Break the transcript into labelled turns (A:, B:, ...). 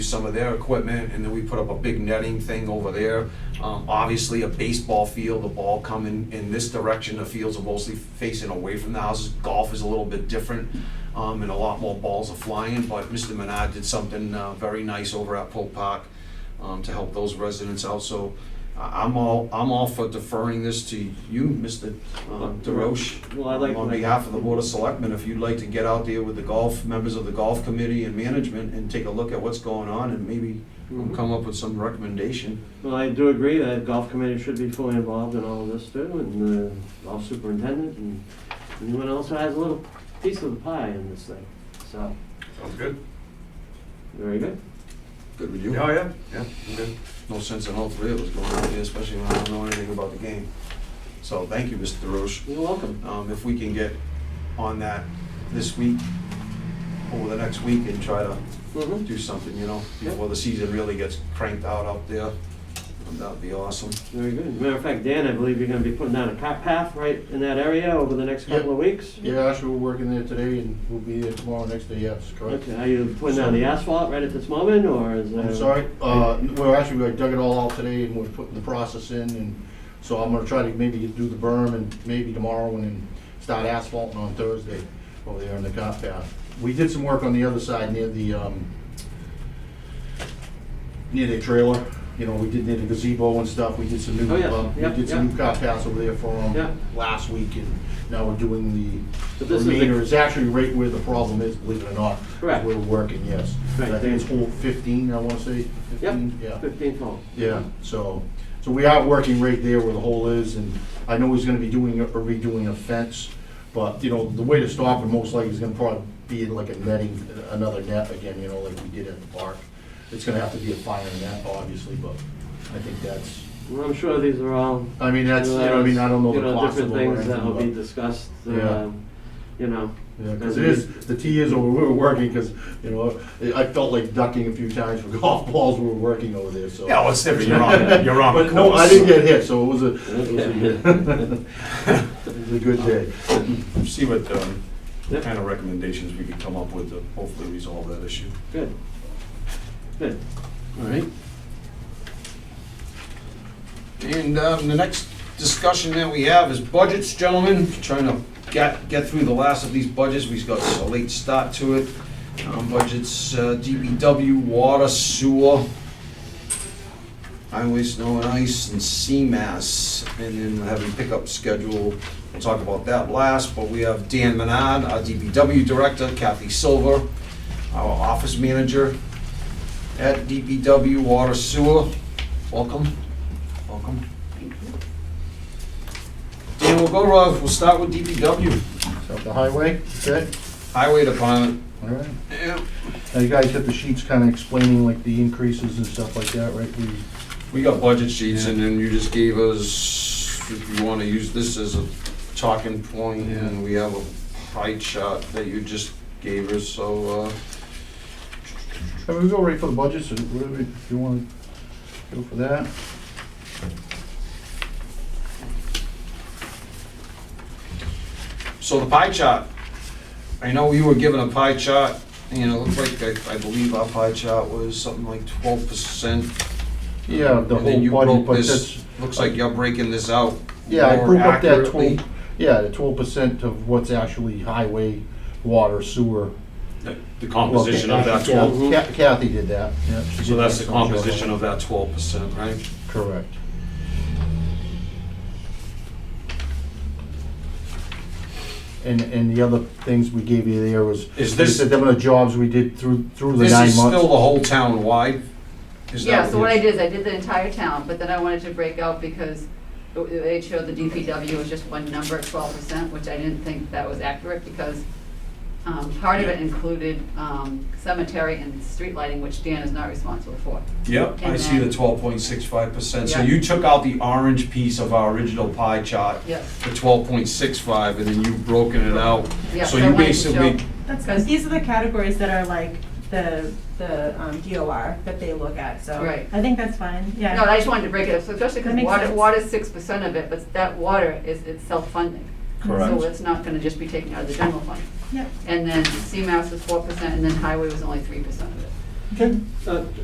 A: some of their equipment, and then we put up a big netting thing over there. Um, obviously, a baseball field, the ball coming in this direction, the fields are mostly facing away from the houses. Golf is a little bit different, um, and a lot more balls are flying, but Mr. Menard did something, uh, very nice over at Pope Park, um, to help those residents out, so I- I'm all, I'm all for deferring this to you, Mr. um, DeRoche.
B: Well, I'd like to
A: On
B: make-
A: behalf of the Board of Selectmen, if you'd like to get out there with the golf, members of the golf committee and management and take a look at what's going on and maybe
B: Mhm.
A: come up with some recommendation.
B: Well, I do agree that golf committee should be fully involved in all of this too, and the golf superintendent and anyone else who has a little piece of the pie in this thing. So,
C: Sounds good.
B: very good.
A: Good with you?
C: Oh, yeah? Yeah, I'm good.
A: No sense in all three of us going out there, especially when I don't know anything about the game. So thank you, Mr. DeRoche.
B: You're welcome.
A: Um, if we can get on that this week, over the next week and try to
B: Mhm.
A: do something, you know, before the season really gets cranked out up there. That'd be awesome.
B: Very good. As a Matter of fact, Dan, I believe you're gonna be putting down a cart path right in that area over the next couple of weeks?
D: Yeah, actually, we're working there today and we'll be there tomorrow, next day, yes, correct.
B: Okay, are you putting down the asphalt right at this moment, or is there?
D: I'm sorry, uh, well, actually, I dug it all out today and we're putting the process in and so I'm gonna try to maybe do the berm and maybe tomorrow and then start asphalting on Thursday over there on the cop path. We did some work on the other side near the, um, near the trailer, you know, we did near the gazebo and stuff, we did some new,
B: Oh, yeah.
D: uh, we
B: Yeah,
D: did
B: yeah.
D: some new cop paths over there for
B: Yeah.
D: them last week and now we're doing the
B: But this is the-
D: remainder is actually right where the problem is, believe it or not.
B: Correct.
D: Where we're working, yes.
B: Right.
D: I think it's hole fifteen, I wanna say, fifteen, yeah.
B: Yep, fifteen hole.
D: Yeah, so, so we are working right there where the hole is, and I know he's gonna be doing, a- or redoing a fence, but, you know, the way to stop it most likely is gonna probably be like a netting, another net again, you know, like we did at the park. It's gonna have to be a fire net, obviously, but I think that's,
B: Well, I'm sure these are all.
D: I mean, that's, you know, I mean, I don't know
B: you
D: the cost of it or
B: Different things
D: anything,
B: that will be
D: but-
B: discussed,
D: Yeah.
B: um, you know.
D: Yeah, because it is, the tee is over, we were working, because, you know, I felt like ducking a few times for golf balls when we were working over there, so.
A: Yeah, well, it's different. You're on, you're on.
D: But no, I didn't get hit, so it was a, it was a good, it was a good day.
A: See what um,
B: Yep.
A: kind of recommendations we could come up with to hopefully resolve that issue.
B: Good. Good. All right.
A: And um, the next discussion that we have is budgets, gentlemen. Trying to get, get through the last of these budgets. We've got a late start to it. Um, Budgets, uh, DPW, water, sewer, highway, snow and ice, and CMAS. And then we're having pickup schedule. We'll talk about that last, but we have Dan Manad, our DPW director, Kathy Silver, our office manager at DPW, water, sewer. Welcome. Welcome. Dan, we'll go, uh, we'll start with DPW,
D: So the highway, okay,
A: Highway Department.
D: all right.
A: Yeah,
D: Now, you guys got the sheets kind of explaining like the increases and stuff like that, right? We-
A: We got budget sheets and then you just gave us, if you wanna use this as a talking point, and we have a pie chart that you just gave us, so, uh,
D: Can we go right for the budget, so whatever, if you want to go for that?
A: so the pie chart. I know you were given a pie chart, and it looked like, I, I believe our pie chart was something like twelve percent.
D: Yeah, the
A: And then you
D: whole budget,
A: broke
D: but
A: this,
D: that's.
A: looks like you're breaking this out
D: Yeah, I
A: more
D: broke up that
A: accurately.
D: twelve, yeah, the twelve percent of what's actually highway, water, sewer.
A: The composition of that
D: Well,
A: twelve,
D: Kath- Kath- Kathy did that, yeah. she
A: so
D: did
A: that's
D: that
A: the
D: on Joe.
A: composition of that twelve percent, right?
D: Correct. And, and the other things we gave you there was.
A: Is this-
D: The amount of jobs we did through, through the
A: This
D: nine
A: is still the
D: months.
A: whole town wide? Is
E: Yeah,
A: that
E: so what I did is I did the entire town, but then I wanted to break out because it- it showed the DPW was just one number at twelve percent, which I didn't think that was accurate because um, part of it included um, cemetery and street lighting, which Dan is not responsible for.
A: Yep, I
E: And
A: see the
E: then-
A: twelve point six five percent, so
E: Yeah.
A: you took out the orange piece of our original pie chart,
E: Yes,
A: the twelve point six five, and then you've broken it out.
E: yeah.
A: So
E: I
A: you
E: wanted to
A: basically,
E: show-
F: That's
E: Because-
F: good. These are the categories that are like the, the um, DOR that they look at, so.
E: Right.
F: I think that's fine, yeah.
E: No, I just wanted to break it up, so especially because
F: That makes
E: water,
F: sense.
E: water's six percent of it, but that water is, it's self-funding. So it's not gonna just be taken out of the general fund.
F: Yep.
E: And then CMAS was four percent, and then highway was only three percent of it.
B: Uh,